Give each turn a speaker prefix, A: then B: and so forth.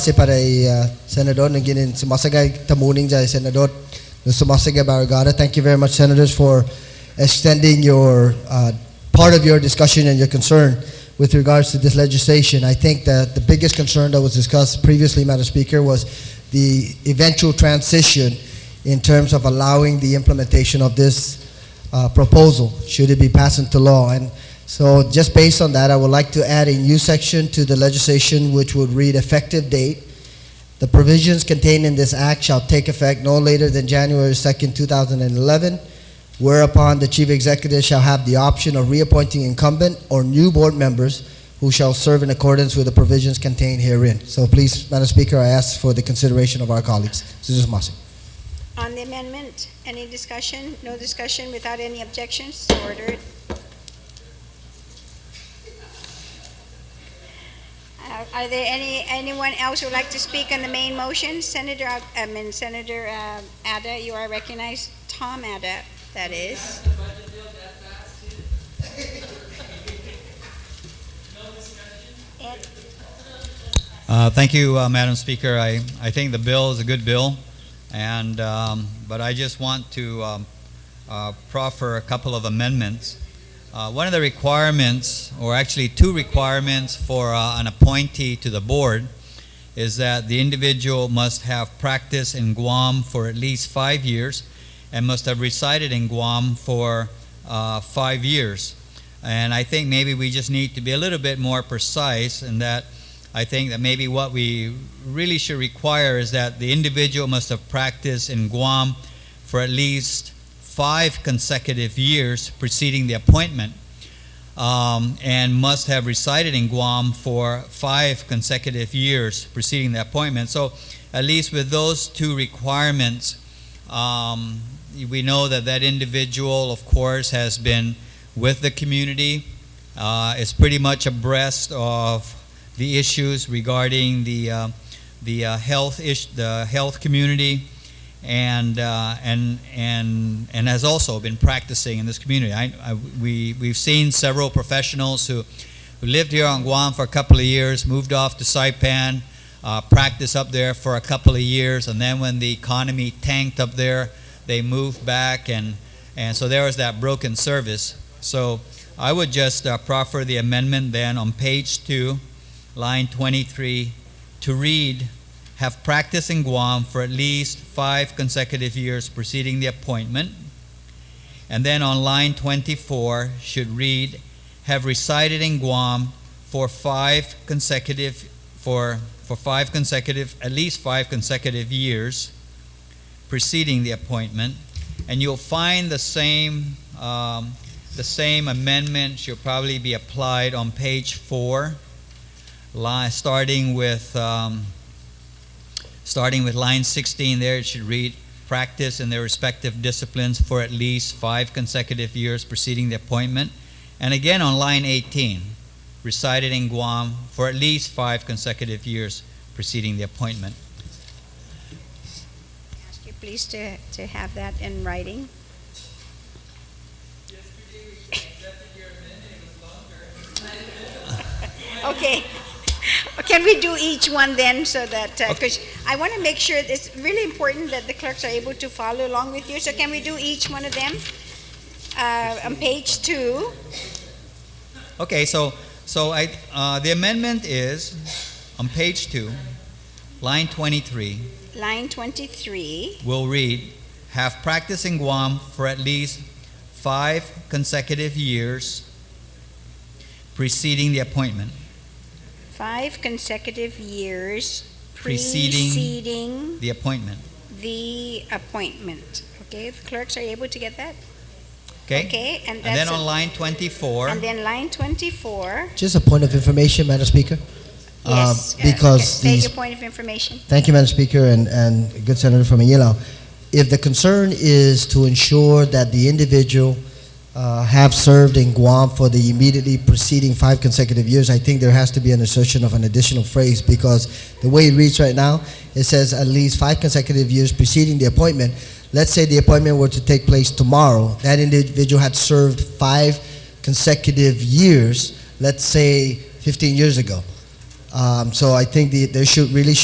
A: Kasi para kay uh, Senador, nung ginin, sumasagay tamuning dyan, Senador, nung sumasagay Barragata. Thank you very much, Senators, for extending your, uh, part of your discussion and your concern with regards to this legislation. I think that the biggest concern that was discussed previously, Madam Speaker, was the eventual transition in terms of allowing the implementation of this uh, proposal, should it be passed into law. And so just based on that, I would like to add a new section to the legislation which would read effective date. The provisions contained in this act shall take effect no later than January 2nd, 2011, whereupon the chief executive shall have the option of reappointing incumbent or new board members who shall serve in accordance with the provisions contained herein. So please, Madam Speaker, I ask for the consideration of our colleagues. Mr. Masi.
B: On the amendment, any discussion? No discussion without any objections? So ordered. Uh, Are there any, anyone else who would like to speak on the main motion? Senator, Al- I mean Senator uh, Ada, you are recognized. Tom Ada, that is. Ed,
C: Uh, Thank you, uh, Madam Speaker. I, I think the bill is a good bill, and, um, but I just want to um, uh, proffer a couple of amendments. Uh, One of the requirements, or actually two requirements for uh, an appointee to the board is that the individual must have practiced in Guam for at least five years and must have resided in Guam for uh, five years. And I think maybe we just need to be a little bit more precise in that I think that maybe what we really should require is that the individual must have practiced in Guam for at least five consecutive years preceding the appointment um, and must have resided in Guam for five consecutive years preceding the appointment. So, at least with those two requirements, um, we know that that individual, of course, has been with the community, uh, is pretty much abreast of the issues regarding the uh, the uh, health ish, the health community, and uh, and and and has also been practicing in this community. I, I, we we've seen several professionals who who lived here on Guam for a couple of years, moved off to Saipan, uh, practiced up there for a couple of years, and then when the economy tanked up there, they moved back, and and so there was that broken service. So. I would just uh, proffer the amendment then on page two, line 23, to read, have practiced in Guam for at least five consecutive years preceding the appointment. And then on line 24, should read, have resided in Guam for five consecutive, for, for five consecutive, at least five consecutive years preceding the appointment. And you'll find the same, um, the same amendment should probably be applied on page four line, starting with um, starting with line 16 there it should read practice in their respective disciplines for at least five consecutive years preceding the appointment and again on line 18 resided in guam for at least five consecutive years preceding the appointment
B: Ask you please to, to have that in writing. Okay. Can we do each one then so that, because I want to make sure, it's really important that the clerks are able to follow along with you. So can we do each one of them? Uh, On page two,
C: Okay, so, so I, uh, the amendment is on page 2 line 23
B: line 23,
C: will read, have practiced in Guam for at least five consecutive years preceding the appointment.
B: five consecutive years
C: Preceding.
B: preceding
C: The appointment.
B: the appointment. Okay, the clerks are able to get that?
C: Okay?
B: Okay, and
C: And then
B: that's,
C: on
B: a-
C: line 24,
B: and then line 24.
A: Just a point of information, Madam Speaker. Um,
B: Yes. uh,
A: because
B: okay. State
A: these-
B: your point of information.
A: Thank you, Madam Speaker, and, and good Senator from Manila. If the concern is to ensure that the individual uh, have served in Guam for the immediately preceding five consecutive years, I think there has to be an assertion of an additional phrase because the way it reads right now, it says at least five consecutive years preceding the appointment. Let's say the appointment were to take place tomorrow. That individual had served five consecutive years, let's say 15 years ago. Um, so I think the, there should really